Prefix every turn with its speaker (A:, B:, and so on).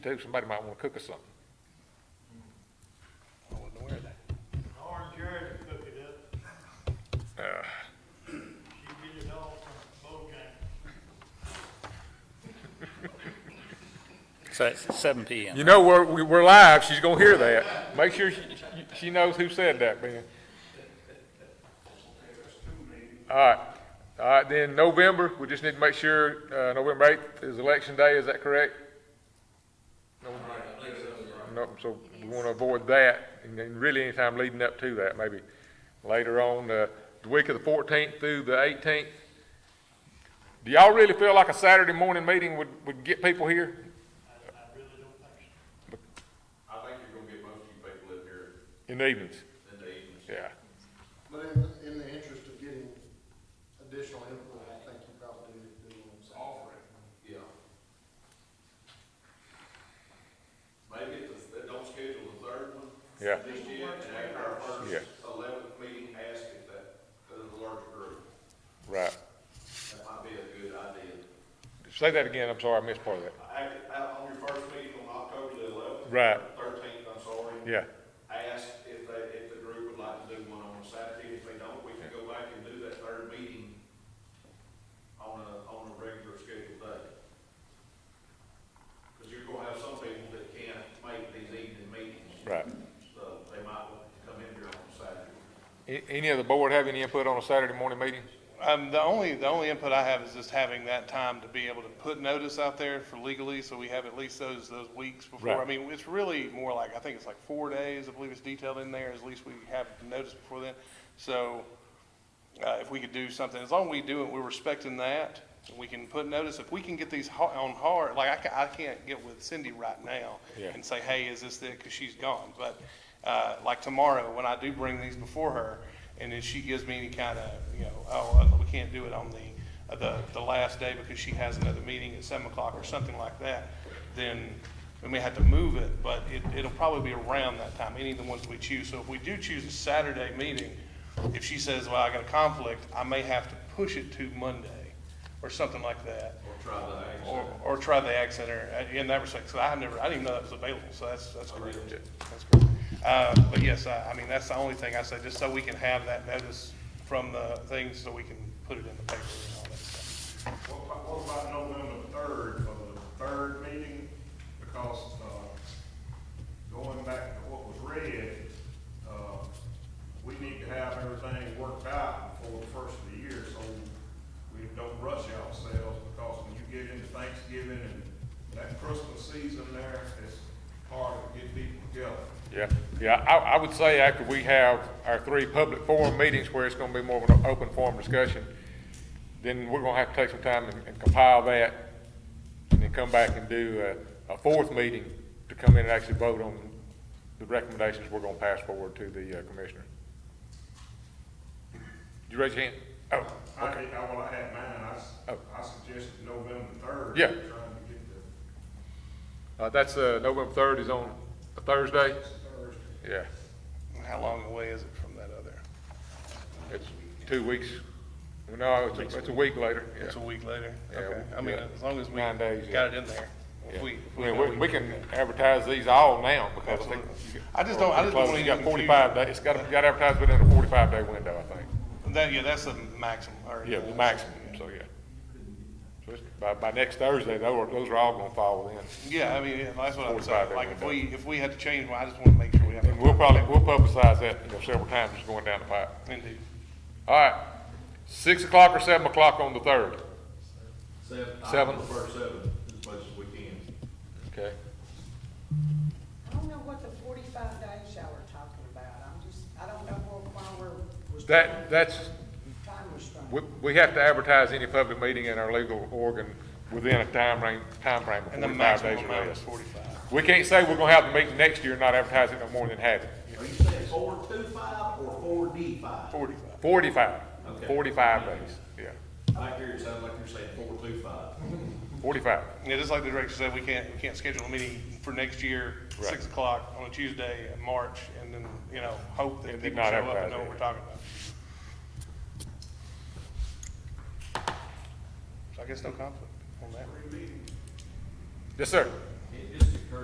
A: too, somebody might wanna cook us something.
B: I wasn't aware of that.
C: Orange Jerry can cook it up. She get it all from Bojangles.
D: So it's seven PM.
A: You know, we're, we- we're live, she's gonna hear that. Make sure she, she knows who said that, Ben. All right, all right, then November, we just need to make sure, uh, November eighth is election day, is that correct? No, so we wanna avoid that, and then really anytime leading up to that, maybe later on, uh, the week of the fourteenth through the eighteenth. Do y'all really feel like a Saturday morning meeting would, would get people here?
E: I think you're gonna get most of you people in here
A: In the evenings,
E: in the evenings.
A: yeah.
F: But in, in the interest of getting additional input, I think you probably do, do what I'm saying.
E: Yeah. Maybe it's, the- don't schedule the third one.
A: Yeah.
E: Just yet, and after our
A: Yeah.
E: first eleventh meeting, ask if that, that is a larger group.
A: Right.
E: That might be a good idea.
A: Say that again, I'm sorry, I missed part of that.
E: Act, on your first meeting on October the eleventh.
A: Right.
E: Thirteenth, I'm sorry.
A: Yeah,
E: Ask if they, if the group would like to do one on a Saturday. If they don't, we can go back and do that third meeting on a, on a regular scheduled day. Because you're gonna have some people that can't make these evening meetings,
A: right.
E: so they might want to come in here on Saturday.
A: A- Any of the board have any input on a Saturday morning meeting?
B: Um, the only, the only input I have is just having that time to be able to put notice out there for legally, so we have at least those, those weeks before. I
A: Right.
B: mean, it's really more like, I think it's like four days, I believe it's detailed in there, at least we have notice before then. So, uh, if we could do something, as long as we do it, we're respecting that, we can put notice, if we can get these ho- on hard, like, I ca- I can't get with Cindy right now
A: Yeah.
B: and say, hey, is this the, because she's gone, but, uh, like tomorrow, when I do bring these before her, and then she gives me any kind of, you know, oh, we can't do it on the, uh, the, the last day because she has another meeting at seven o'clock or something like that, then we may have to move it, but it, it'll probably be around that time, any of the ones we choose. So if we do choose a Saturday meeting, if she says, well, I got a conflict, I may have to push it to Monday or something like that.
E: Or try the act.
B: Or, or try the Ag Center uh, in that respect, 'cause I have never, I didn't even know that was available, so that's, that's great. That's great. Uh, but yes, I, I mean, that's the only thing I say, just so we can have that notice from the things, so we can put it in the paper and all that stuff.
G: What about, what about November third, for the third meeting? Because, uh, going back to what was read, uh, we need to have everything worked out before the first of the year, so we don't rush ourselves, because when you get into Thanksgiving and that Christmas season there, it's hard to get people together.
A: Yeah, yeah, I, I would say after we have our three public forum meetings where it's gonna be more of an open forum discussion, then we're gonna have to take some time and- and compile that, and then come back and do a, a fourth meeting to come in and actually vote on the recommendations we're gonna pass forward to the uh, commissioner. Did you raise your hand? Oh,
G: I, I, well, I had mine, I, s-
A: Oh.
G: I suggested November third.
A: Yeah.
G: Trying to get the
A: uh, that's, uh, November third is on a Thursday?
G: Thursday.
A: Yeah,
B: How long away is it from that other?
A: it's two weeks. No, it's a, it's a week later, yeah.
B: It's a week later?
A: Yeah,
B: Okay,
A: we-
B: I mean,
A: yeah.
B: as long as we
A: Nine
B: got
A: days, yeah.
B: it in there. If
A: Yeah.
B: we- if we
A: I mean,
B: know
A: we, we can advertise these all now because I think.
B: Absolutely. I just don't- I just don't want
A: You got
B: any
A: forty-five
B: confusion.
A: days, it's got, you got to advertise within a forty-five day window, I think.
B: That, yeah, that's the maximum, or.
A: Yeah, the maximum, so yeah. So it's, by, by next Thursday, those, are- those are all gonna fall within.
B: Yeah, I mean, yeah, that's what I'm
A: 45
B: saying,
A: day
B: like, if
A: window.
B: we, if we had to change one, I just wanna make sure we have.
A: And we'll probably, we'll publicize that, you know, several times just going down the pipe.
B: Indeed.
A: All right, six o'clock or seven o'clock on the third,
E: Seven.
A: Seven.
E: I prefer seven as much as we can.
A: okay?
H: I don't know what the forty-five days y'all are talking about, I'm just, I don't know what, why we're.
A: That, that's,
H: Time restraint.
A: we, we have to advertise any public meeting in our legal organ within a time range, time frame of
B: And the
A: forty-five days
B: maximum
A: or
B: amount is
A: less.
B: forty-five.
A: We can't say we're gonna have the meeting next year and not advertise it no more than half.
E: Are you saying four two five or four D five?
B: Forty-five.
A: Forty-five.
E: Okay.
A: Forty-five days, yeah.
E: I hear it sounds like you're saying four two five.
A: Forty-five.
B: Yeah, just like the director said, we can't, we can't schedule a meeting for next year,
A: Right.
B: six o'clock on a Tuesday in March, and then, you know, hope that
A: And
B: people
A: not
B: show up
A: advertise
B: and know
A: it.
B: what we're talking about. So I guess no conflict on that.
A: Yes, sir.